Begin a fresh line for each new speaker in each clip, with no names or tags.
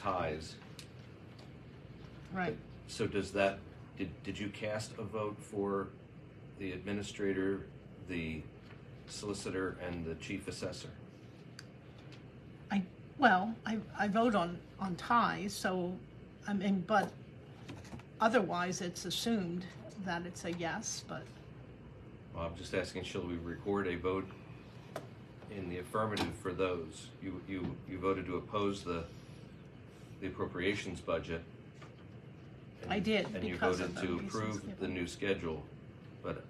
ties.
Right.
So does that, did, did you cast a vote for the administrator, the solicitor, and the chief assessor?
I, well, I, I vote on, on ties, so, I mean, but otherwise, it's assumed that it's a yes, but,
Well, I'm just asking, shall we record a vote in the affirmative for those? You, you, you voted to oppose the, the appropriations budget. and
I
you-
did,
And you
because of
voted to
the reasons
approve the
given.
new schedule, but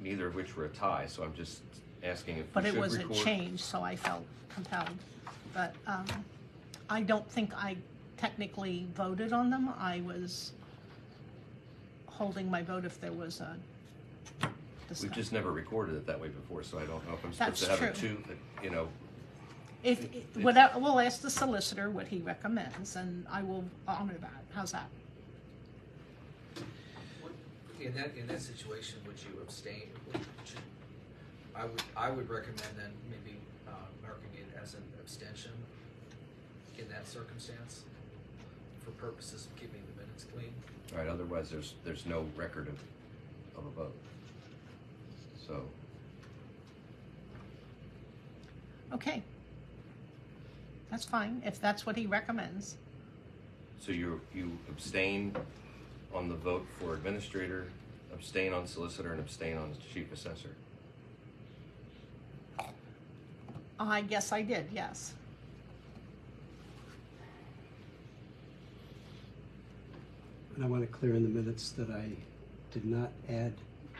neither of which were a tie, so I'm just asking if we
but it
should
was a
record-
change, so I felt compelled. But, um, I don't think I technically voted on them, I was holding my vote if there was a
We've
discussion.
just never recorded it that way before, so I don't know if I'm supposed
That's
to have a two,
true.
you know,
If,
It-
whatever, we'll ask the solicitor what he recommends, and I will honor that, how's that?
Would- In that, in that situation, would you abstain? Would- should- I would, I would recommend then maybe uh, marking it as an abstention in that circumstance for purposes of keeping the minutes clean.
right, otherwise there's, there's no record of, of a vote. So,
Okay. That's fine, if that's what he recommends.
so you, you abstain on the vote for administrator, abstain on solicitor, and abstain on chief assessor.
I guess I did, yes.
And I want to clear in the minutes that I did not add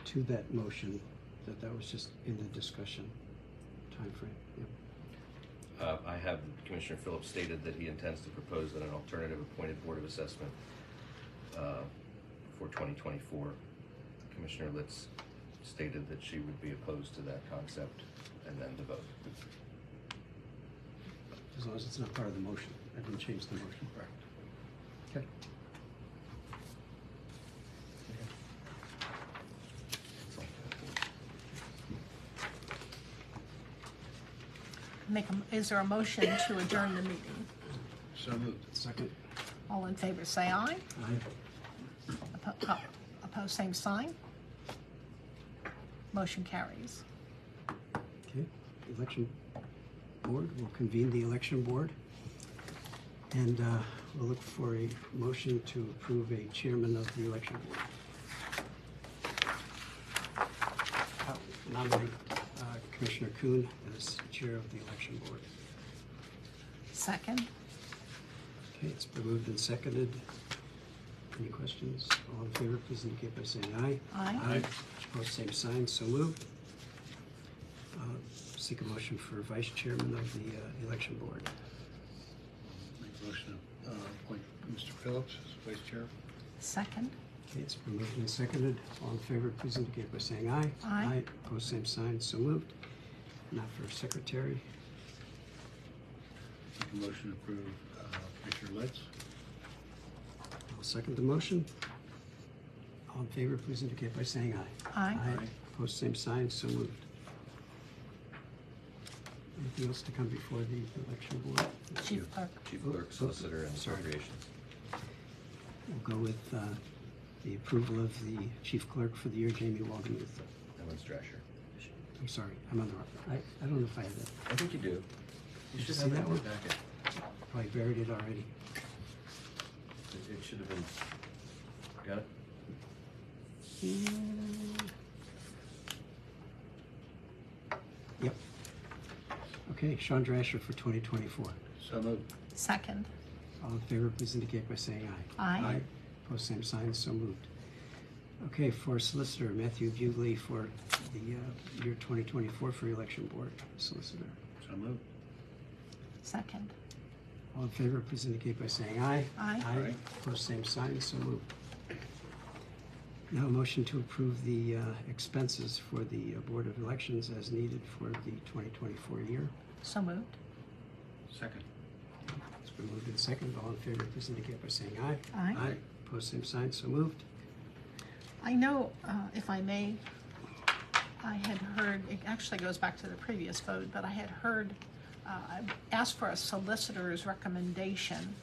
to that motion, that that was just in the discussion timeframe. Yep.
Uh, I have Commissioner Phillips stated that he intends to propose that an alternative appointed board of assessment, uh, for twenty twenty-four. Commissioner Litz stated that she would be opposed to that concept, and then the vote.
As long as it's not part of the motion. I didn't change the motion. Correct. Okay.
Make a, is there a motion to adjourn the meeting?
So moved. Second.
All in favor, say aye.
Aye.
Oppo- uh, Opposed, same sign. Motion carries.
Okay, election board, we'll convene the election board. And uh, we'll look for a motion to approve a chairman of the election board. I'll Nominate uh, Commissioner Kuhn as chair of the election board.
Second,
Okay, it's been moved and seconded. Any questions? All in favor, please indicate by saying aye.
Aye.
Opposed, same sign, so moved. Uh, Seek a motion for vice chairman of the uh, election board.
Make a motion to uh, appoint Mr. Phillips as vice chair.
second,
Okay, it's been moved and seconded. All in favor, please indicate by saying aye.
Aye.
Opposed, same sign, so moved. Now for secretary.
Make a motion to approve uh, Commissioner Litz.
I'll second the motion. All in favor, please indicate by saying aye.
aye.
Opposed, same sign, so moved. Anything else to come before the election board?
Chief Clerk,
Chief clerk, solicitor, and appropriations.
We'll go with uh, the approval of the chief clerk for the year, Jamie Waldemuth.
Ellen Strasher.
I'm sorry, I'm on the wrong, I, I don't know if I have that,
I think you do.
You
should have that in your
packet.
probably buried it already.
It, it should have been, got it?
Yep. Okay, Sean Drasher for 2024.
So moved.
second,
All in favor, please indicate by saying aye.
Aye. Aye.
Post same sign, so moved. Okay, for solicitor, Matthew Bugley for the uh, year 2024 for election board solicitor.
So moved.
second,
All in favor, please indicate by saying aye.
Aye.
Aye.
Aye.
Post same sign, so moved. Now, a motion to approve the uh, expenses for the uh, Board of Elections as needed for the 2024 year.
so moved,
Second.
It's been moved and seconded. All in favor, please indicate by saying aye.
aye.
Aye. Post same sign, so moved.
I know, uh, if I may, I had heard, it actually goes back to the previous vote, but I had heard, uh, I asked for a solicitor's recommendation